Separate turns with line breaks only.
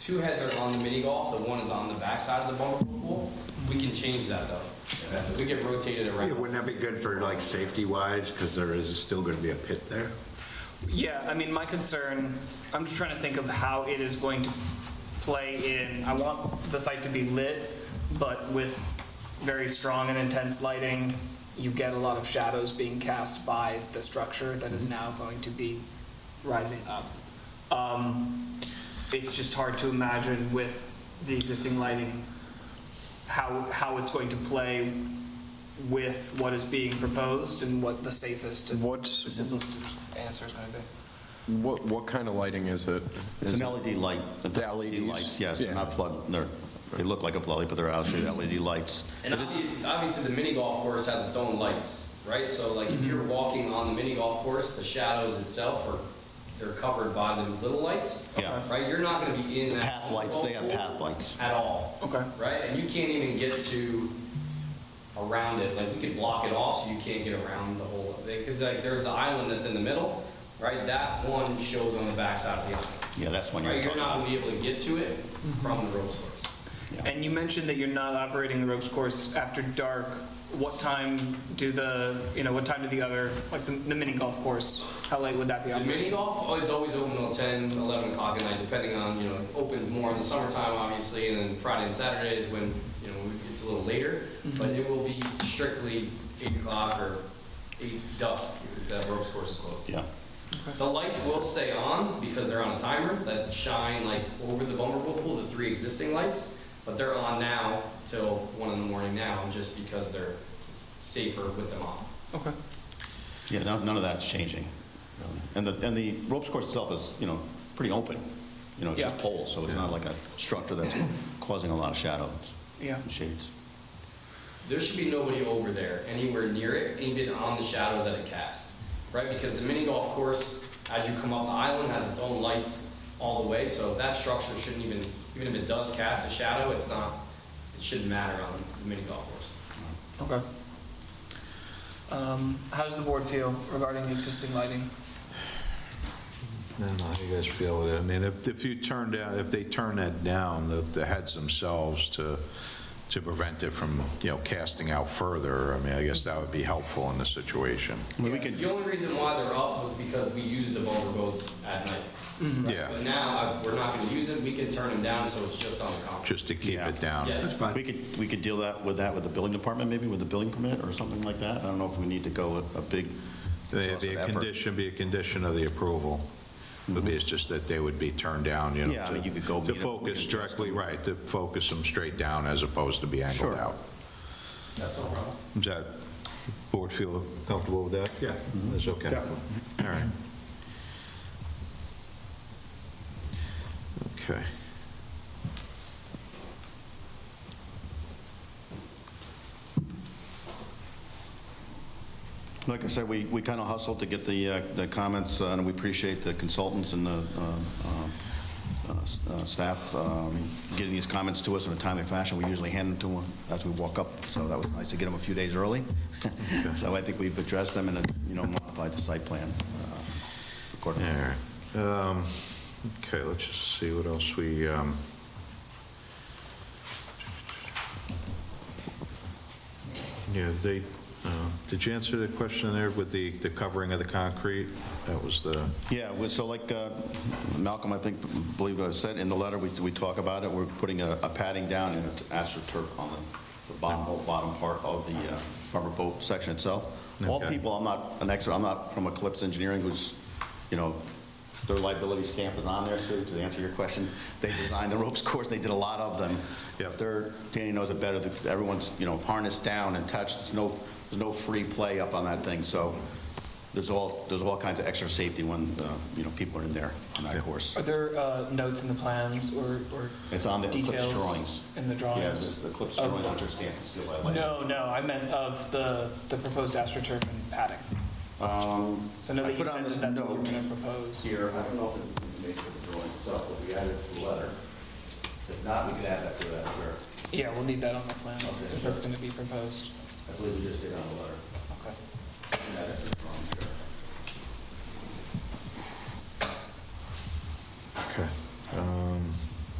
two heads are on the mini golf, the one is on the backside of the bumper pool. We can change that though. We can rotate it
Yeah, Wouldn't
around.
that be good for like safety wise, because there is still going to be a pit there?
Yeah, I mean, my concern, I'm just trying to think of how it is going to play in, I want the site to be lit, but with very strong and intense lighting, you get a lot of shadows being cast by the structure that is now going to be rising up. Um, It's just hard to imagine with the existing lighting, how, how it's going to play with what is being proposed and what the safest and
What's-
the simplest answer is going to be.
What, what kind of lighting is it?
It's an LED light. E
The LEDs?
lights, Yes, they're
Yeah.
not flood, they're, they look like a floodlight, but they're actually LED lights.
And obvi- obviously, the mini golf course has its own lights, right? So like if you're walking on the mini golf course, the shadows itself are, they're covered by the little lights.
Yeah.
Right? You're not gonna be in that.
Path lights, they have path lights.
At all.
Okay.
right? And you can't even get to around it, like, we could block it off so you can't get around the whole, because like, there's the island that's in the middle, right? That one shows on the backside of the island,
Yeah, that's one you're
right? You're
talking
not
about.
gonna be able to get to it from the road source.
And you mentioned that you're not operating the ropes course after dark. What time do the, you know, what time do the other, like the, the mini golf course, how late would that be
The mini
operational?
golf is always open till 10, 11 o'clock at night, depending on, you know, it opens more in the summertime, obviously, and then Friday and Saturday is when, you know, it's a little later, but it will be strictly 8 o'clock or 8 dusk, that ropes course is closed.
Yeah.
The lights will stay on because they're on a timer that shine like over the bumper pool, pool, the three existing lights, but they're on now till one in the morning now, just because they're safer with them on.
Okay.
Yeah, no- none of that's changing. really. And the, and the ropes course itself is, you know, pretty open. You know, it's just
Yeah.
poles, so it's not like a structure that's causing a lot of shadows
Yeah.
and shades.
There should be nobody over there, anywhere near it, even on the shadows that it casts, right? Because the mini golf course, as you come up the island, has its own lights all the way, so that structure shouldn't even, even if it does cast a shadow, it's not, it shouldn't matter on the mini golf course.
Okay. Um, how does the board feel regarding the existing lighting?
I don't know how you guys feel with it. I mean, if, if you turn down, if they turn that down, the, the heads themselves to, to prevent it from, you know, casting out further, I mean, I guess that would be helpful in the situation.
I mean, we could,
The only reason why they're up was because we used the bumper boats at night.
Mm-hmm.
Yeah,
But now, uh, we're not gonna use it, we can turn them down, so it's just on the contract.
just to keep
Yeah.
it down.
Yeah,
we could, we could deal that, with that with the building department, maybe with the building permit or something like that. I don't know if we need to go with a big
It'd
exhaustive
be a
effort.
condition, be a condition of the approval. Would be, it's just that they would be turned down, you know.
Yeah, I
to-
mean, you could go
To
meet 'em, we
focus
could address
directly, right, to focus them straight down as opposed to be angled
Sure.
out.
that's no problem.
Does that board feel comfortable with that? Yeah. That's okay. Definitely. All right. Okay.
Like I said, we, we kind of hustled to get the, uh, the comments, uh, and we appreciate the consultants and the uh, uh, uh, s- uh, staff um, getting these comments to us in a timely fashion. We usually hand them to them as we walk up, so that was nice to get them a few days early. So I think we've addressed them and, uh, you know, modified the site plan uh,
All
accordingly.
right. Um, Okay, let's just see what else we, um, yeah, they, uh, did you answer the question there with the, the covering of the concrete? That was the,
Yeah, well, so like uh, Malcolm, I think, believe I said, in the letter, we, we talk about it, we're putting a a padding down and an astroturf on the- the bottom, whole bottom part of the uh, rubber boat section itself. All
Okay.
people, I'm not an expert, I'm not from Eclipse Engineering, who's, you know, their liability stamp is on there, so to answer your question, they designed the ropes course, they did a lot of them.
Yep.
They're, Danny knows it better, that everyone's, you know, harnessed down and touched, there's no, there's no free play up on that thing, so there's all, there's all kinds of extra safety when, uh, you know, people are in there on that
Okay.
course.
Are there, uh, notes in the plans or, or
It's on the Eclipse
details
drawings.
in the
Yeah,
drawings?
there's the Eclipse
Of-
drawings, which are stamped and sealed by Lightning.
Oh. No, no, I meant of the, the proposed astroturf and padding.
Um,
So I know
I
that you
put on
said
this
that that's what you're
note.
going to propose.
Here, I don't know if it's made for the drawing itself, but we added it to the letter. If not, we could add that to that, sure.
Yeah, we'll need that on the plans,
Okay,
if that's going to be proposed.
I believe we just did on the letter.
Okay.
We can add it to the drawing, sure.
um,